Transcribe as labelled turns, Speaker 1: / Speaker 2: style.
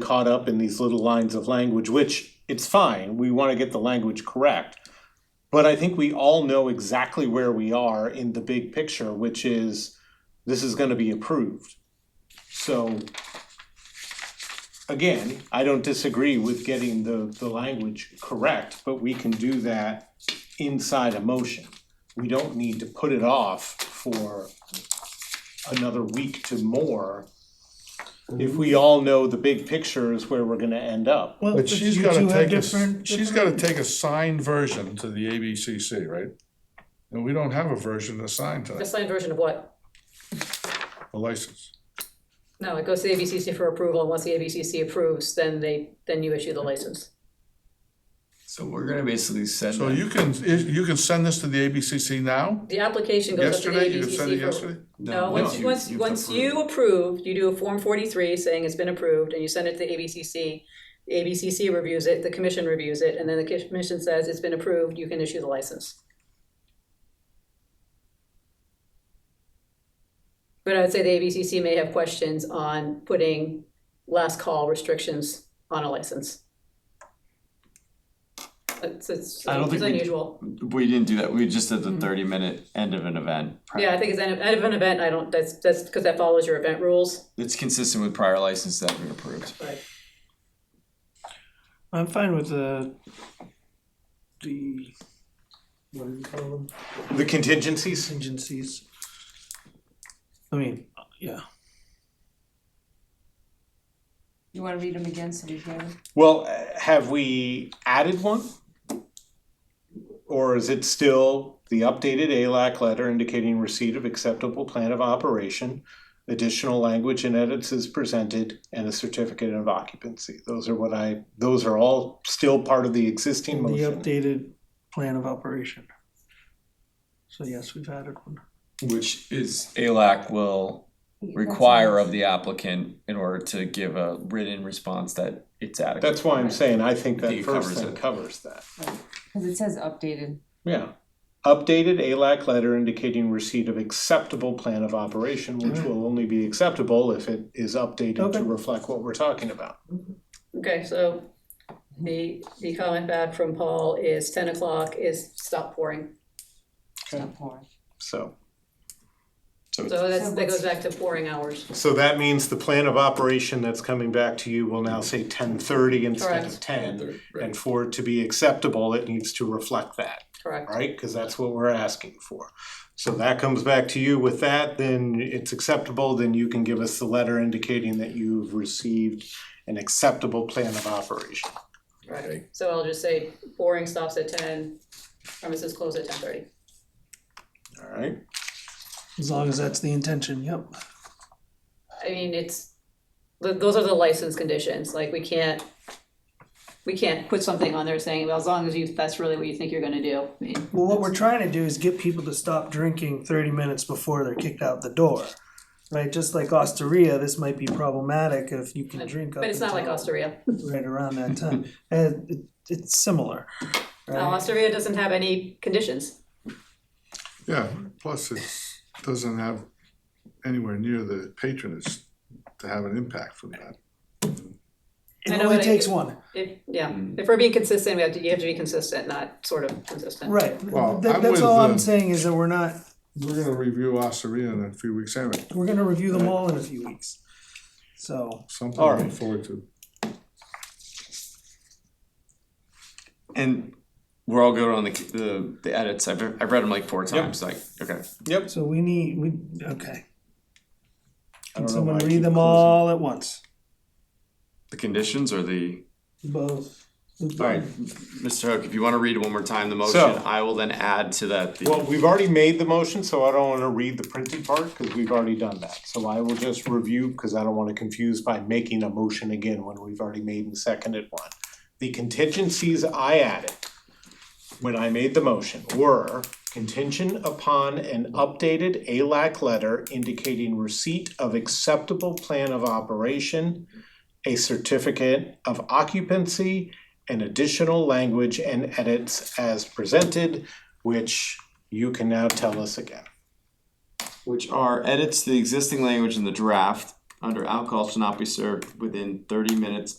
Speaker 1: caught up in these little lines of language, which it's fine. We want to get the language correct. But I think we all know exactly where we are in the big picture, which is this is going to be approved. So again, I don't disagree with getting the, the language correct, but we can do that inside a motion. We don't need to put it off for another week to more if we all know the big picture is where we're gonna end up.
Speaker 2: Well,
Speaker 3: But she's gotta
Speaker 2: you two have
Speaker 3: take a, s-
Speaker 2: different-
Speaker 3: she's gotta take a signed version to the ABCC, right? And we don't have a version assigned to
Speaker 4: The
Speaker 3: that,
Speaker 4: signed version of what?
Speaker 3: a license.
Speaker 4: No, it goes to the ABCC for approval, and once the ABCC approves, then they, then you issue the license.
Speaker 5: So we're gonna basically send
Speaker 3: So
Speaker 5: them-
Speaker 3: you can, you can send this to the ABCC now?
Speaker 4: The application goes up to the
Speaker 3: Yesterday, you
Speaker 4: ABCC.
Speaker 3: could send it
Speaker 4: for-
Speaker 3: yesterday?
Speaker 4: No,
Speaker 5: once
Speaker 4: once,
Speaker 5: you-
Speaker 4: once,
Speaker 5: you've
Speaker 4: once
Speaker 5: approved.
Speaker 4: you approve, you do a Form forty-three saying it's been approved, and you send it to the ABCC. The ABCC reviews it, the commission reviews it, and then the commission says it's been approved, you can issue the license. But I would say the ABCC may have questions on putting last call restrictions on a license. It's, it's,
Speaker 5: I don't
Speaker 4: it's
Speaker 5: think we-
Speaker 4: unusual.
Speaker 5: We didn't do that. We just did the thirty minute end of an event.
Speaker 4: Yeah, I think it's end of, end of an event, I don't, that's, that's, because that follows your event rules,
Speaker 5: It's consistent with prior license that we approved.
Speaker 4: but.
Speaker 2: I'm fine with the, the, what do you call them,
Speaker 1: The contingencies?
Speaker 2: contingencies. I mean, yeah,
Speaker 6: You wanna read them again so we hear them?
Speaker 1: Well, uh, have we added one? Or is it still the updated ALAC letter indicating receipt of acceptable plan of operation? Additional language and edits is presented and a certificate of occupancy. Those are what I, those are all still part of the
Speaker 2: the
Speaker 1: existing motion.
Speaker 2: updated plan of operation. So yes, we've added one.
Speaker 5: Which is ALAC will require of the applicant in order to give a written response that it's adequate.
Speaker 1: That's why I'm saying I think
Speaker 5: I think
Speaker 1: that
Speaker 5: it
Speaker 1: first
Speaker 5: covers
Speaker 1: thing
Speaker 5: it.
Speaker 1: covers that.
Speaker 6: Cause it says updated.
Speaker 1: Yeah. Updated ALAC letter indicating receipt of acceptable plan of operation, which will only be acceptable if it is updated
Speaker 2: Okay.
Speaker 1: to reflect what we're talking about.
Speaker 4: Okay, so the, the comment back from Paul is ten o'clock is stop pouring.
Speaker 6: Stop pouring.
Speaker 1: So.
Speaker 4: So that's,
Speaker 6: So
Speaker 4: that goes
Speaker 6: what's-
Speaker 4: back to pouring hours.
Speaker 1: So that means the plan of operation that's coming back to you will now say ten thirty instead of
Speaker 4: Correct.
Speaker 1: ten.
Speaker 5: Right.
Speaker 1: And for it to be acceptable, it needs to reflect that,
Speaker 4: Correct.
Speaker 1: right? Cause that's what we're asking for. So that comes back to you with that, then it's acceptable, then you can give us the letter indicating that you've received an acceptable plan of operation.
Speaker 4: Right. So I'll just say pouring stops at ten, premises close at ten thirty.
Speaker 1: All right.
Speaker 2: As long as that's the intention, yep.
Speaker 4: I mean, it's, th- those are the license conditions, like we can't, we can't put something on there saying, well, as long as you, that's really what you think you're gonna do. I mean,
Speaker 2: Well, what we're trying to do is get people to stop drinking 30 minutes before they're kicked out the door. Right? Just like Osteria, this might be problematic if you can drink up
Speaker 4: But it's not like
Speaker 2: until
Speaker 4: Osteria.
Speaker 2: right around that time. Uh, it- it's similar.
Speaker 4: Now,
Speaker 2: right?
Speaker 4: Osteria doesn't have any conditions.
Speaker 3: Yeah, plus it's, doesn't have anywhere near the patronage to have an impact from that.
Speaker 4: I
Speaker 2: It
Speaker 4: know,
Speaker 2: only
Speaker 4: but I-
Speaker 2: takes one.
Speaker 4: If, yeah, if we're being consistent, we have to, you have to be consistent, not sort of consistent.
Speaker 2: Right.
Speaker 3: Well,
Speaker 2: That-
Speaker 3: I'm
Speaker 2: that's
Speaker 3: with
Speaker 2: all
Speaker 3: the-
Speaker 2: I'm saying is that we're not,
Speaker 3: We're gonna review Osteria in a few weeks anyway,
Speaker 2: we're going to review them all in a few weeks. So,
Speaker 3: something
Speaker 1: All
Speaker 3: to look
Speaker 1: right.
Speaker 3: forward to.
Speaker 5: And we're all good on the the, the edits. I've I've read them like four times. Like okay.
Speaker 1: Yep.
Speaker 2: so we need, we, okay.
Speaker 1: I don't know
Speaker 2: Can someone
Speaker 1: why I
Speaker 2: read
Speaker 1: keep
Speaker 2: them
Speaker 1: closing.
Speaker 2: all at once?
Speaker 5: The conditions or the
Speaker 2: Both.
Speaker 5: all right, Mr. Hook. If you want to read it one more time, the motion,
Speaker 1: So-
Speaker 5: I will then add to that. The,
Speaker 1: Well, we've already made the motion, so I don't wanna read the printed part, cause we've already done that. So I will just review, cause I don't wanna confuse by making a motion again when we've already made and seconded one. The contingencies I added when I made the motion were contingent upon an updated ALAC letter indicating receipt of acceptable plan of operation, a certificate of occupancy, and additional language and edits as presented, which you can now tell us again.
Speaker 5: which are edits to the existing language in the draft under alcohol shall not be served within thirty minutes